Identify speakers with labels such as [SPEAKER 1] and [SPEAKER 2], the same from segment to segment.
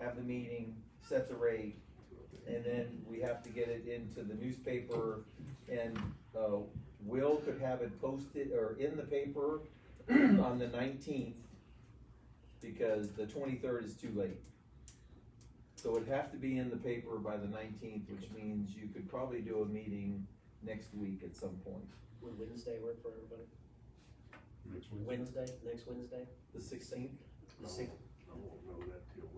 [SPEAKER 1] have the meeting, sets a rate, and then we have to get it into the newspaper. And, uh, Will could have it posted or in the paper on the nineteenth, because the twenty-third is too late. So it'd have to be in the paper by the nineteenth, which means you could probably do a meeting next week at some point,
[SPEAKER 2] Would Wednesday work for everybody?
[SPEAKER 3] Next Wednesday?
[SPEAKER 2] Wednesday, next Wednesday?
[SPEAKER 1] the sixteenth.
[SPEAKER 2] The sixth,
[SPEAKER 3] I won't know that till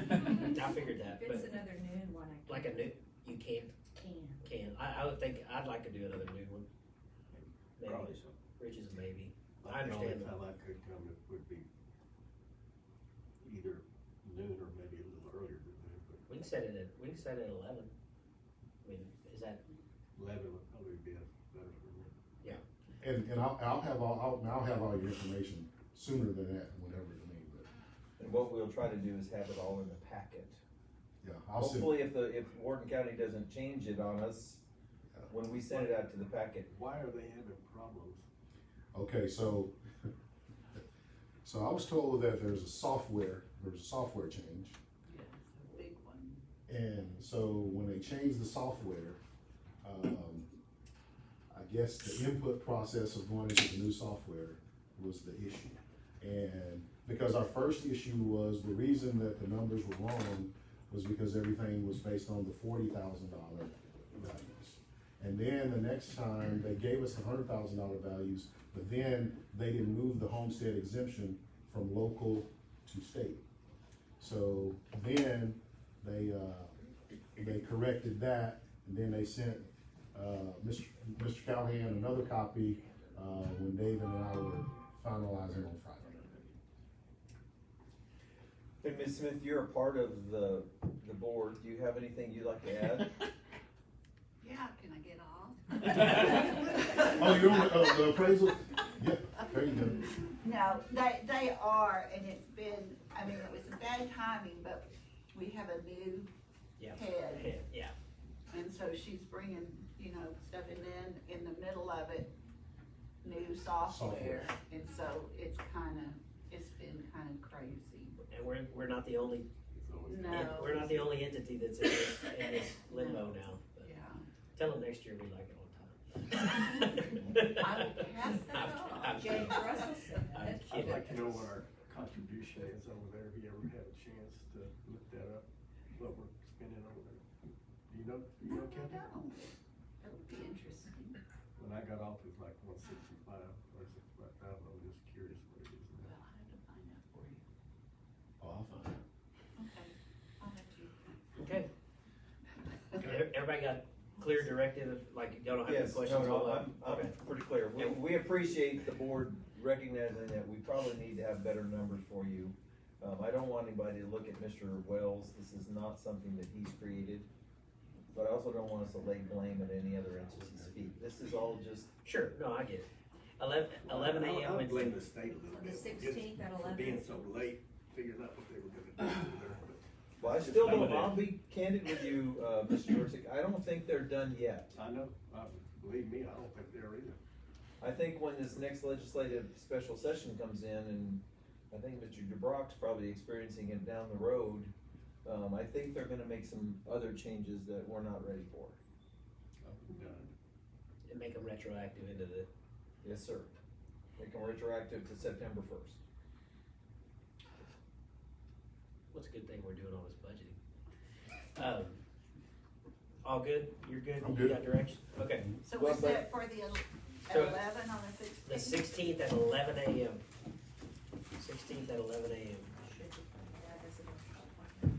[SPEAKER 3] Wednesday.
[SPEAKER 2] I figured that,
[SPEAKER 4] If it's
[SPEAKER 2] but
[SPEAKER 4] another noon one, I
[SPEAKER 2] like a new, you can't,
[SPEAKER 4] can.
[SPEAKER 2] can, I, I would think, I'd like to do another new one. Maybe,
[SPEAKER 3] so.
[SPEAKER 2] Rich is a maybe. I understand
[SPEAKER 3] The
[SPEAKER 2] that.
[SPEAKER 3] only time I could come it would be either noon or maybe a little earlier than that, but
[SPEAKER 2] We can set it at, we can set it at eleven. I mean, is that,
[SPEAKER 3] eleven would probably be better for me.
[SPEAKER 5] And, and I'll, I'll have all, I'll, I'll have all your information sooner than that, whatever it may be,
[SPEAKER 1] And what we'll try to do is have it all in the packet.
[SPEAKER 5] yeah, I'll send,
[SPEAKER 1] Hopefully, if the, if Warden County doesn't change it on us, when we send it out to the packet,
[SPEAKER 3] Why are they having problems?
[SPEAKER 5] okay, so. So I was told that there's a software, there was a software change,
[SPEAKER 6] Big one.
[SPEAKER 5] and so when they changed the software, um, I guess the input process of going into the new software was the issue. And because our first issue was, the reason that the numbers were wrong was because everything was based on the forty thousand dollar values. And then the next time, they gave us the hundred thousand dollar values, but then they did move the homestead exemption from local to state. So then they, uh, they corrected that, and then they sent, uh, Mr. Mr. Callahan another copy, uh, when David and I were finalizing on Friday.
[SPEAKER 1] And Ms. Smith, you're a part of the, the board, do you have anything you'd like to add?
[SPEAKER 6] Yeah, can I get off?
[SPEAKER 5] Oh, you're, uh, the appraisal, yeah, there you go.
[SPEAKER 6] No, they, they are, and it's been, I mean, it was bad timing, but we have a new
[SPEAKER 2] Yeah.
[SPEAKER 6] head.
[SPEAKER 2] yeah,
[SPEAKER 6] And so she's bringing, you know, stuff, and then in the middle of it, new software.
[SPEAKER 5] Software.
[SPEAKER 6] And so it's kinda, it's been kinda crazy.
[SPEAKER 2] and we're, we're not the only,
[SPEAKER 3] It's always-
[SPEAKER 6] No.
[SPEAKER 2] we're not the only entity that's in this, in this limbo now. but
[SPEAKER 6] Yeah,
[SPEAKER 2] Tell them next year we like it on time.
[SPEAKER 6] I will pass that
[SPEAKER 2] I'm-
[SPEAKER 6] on.
[SPEAKER 2] I'm
[SPEAKER 4] Jane
[SPEAKER 2] kidding.
[SPEAKER 4] Russell said
[SPEAKER 2] I'm
[SPEAKER 4] that.
[SPEAKER 3] I'd like to
[SPEAKER 2] kidding.
[SPEAKER 3] know what our contribution is over there, if you ever had a chance to look that up, what we're spending over there. Do you know, do you know,
[SPEAKER 6] I
[SPEAKER 3] Kathy?
[SPEAKER 6] don't, it'll be interesting.
[SPEAKER 3] When I got off, it was like one sixty-five, or sixty-five thousand, I'm just curious what it is
[SPEAKER 6] Well,
[SPEAKER 3] now.
[SPEAKER 6] I have to find out for you.
[SPEAKER 5] Oh, I'll find it.
[SPEAKER 6] Okay, I'll have to.
[SPEAKER 2] Okay, Ev- everybody got clear directive, like you don't have any
[SPEAKER 1] Yes, no,
[SPEAKER 2] questions,
[SPEAKER 1] no,
[SPEAKER 2] all that?
[SPEAKER 1] I'm,
[SPEAKER 2] Okay,
[SPEAKER 1] I'm pretty clear, we, we appreciate the board recognizing that we probably need to have better numbers for you. Um, I don't want anybody to look at Mr. Wells, this is not something that he's created, but I also don't want us to lay blame at any other entity's feet, this is all just,
[SPEAKER 2] sure, no, I get it. Eleven, eleven
[SPEAKER 3] I- I
[SPEAKER 2] AM
[SPEAKER 3] would blame
[SPEAKER 2] Wednesday.
[SPEAKER 3] the state a little
[SPEAKER 4] The
[SPEAKER 3] bit. for just
[SPEAKER 4] 16th at
[SPEAKER 3] for
[SPEAKER 4] 11.
[SPEAKER 3] Being so late, figuring out what they were gonna do over there,
[SPEAKER 1] well, I still don't, I'll be candid with you, uh, Mr. Yurcik, I don't think they're done yet.
[SPEAKER 3] but I know, uh, believe me, I don't think they're either.
[SPEAKER 1] I think when this next legislative special session comes in, and I think Mr. DeBrock's probably experiencing it down the road, um, I think they're gonna make some other changes that we're not ready for.
[SPEAKER 3] I'm done.
[SPEAKER 2] and make them retroactive into the,
[SPEAKER 1] Yes, sir. Make them retroactive to September first.
[SPEAKER 2] what's a good thing we're doing all this budgeting? Um, all good, you're good,
[SPEAKER 5] I'm
[SPEAKER 2] you
[SPEAKER 5] good.
[SPEAKER 2] got direction, okay.
[SPEAKER 6] So
[SPEAKER 1] Well,
[SPEAKER 6] was
[SPEAKER 1] but-
[SPEAKER 6] that for the el- at
[SPEAKER 2] So-
[SPEAKER 6] eleven on the sixteenth?
[SPEAKER 2] The sixteenth at eleven AM. Sixteenth at eleven AM,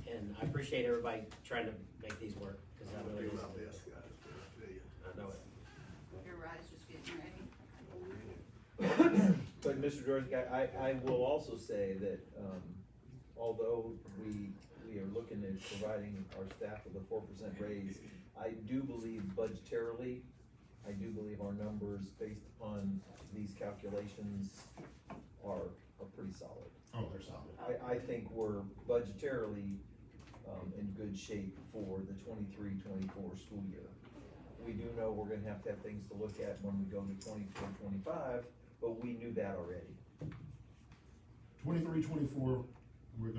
[SPEAKER 2] and I appreciate everybody trying to make these work, cause
[SPEAKER 3] I'm
[SPEAKER 2] I
[SPEAKER 3] gonna
[SPEAKER 2] know it
[SPEAKER 3] do
[SPEAKER 2] is,
[SPEAKER 3] my best, guys, but I tell you,
[SPEAKER 2] I know it.
[SPEAKER 6] Your ride's just getting ready.
[SPEAKER 3] I'm really-
[SPEAKER 1] But Mr. George, I, I, I will also say that, um, although we, we are looking at providing our staff with a four percent raise, I do believe budgetarily, I do believe our numbers based upon these calculations are, are pretty solid.
[SPEAKER 5] Oh, they're solid.
[SPEAKER 1] I, I think we're budgetarily, um, in good shape for the 23-24 school year. We do know we're gonna have to have things to look at when we go to 24-25, but we knew that already.
[SPEAKER 5] Twenty-three, twenty-four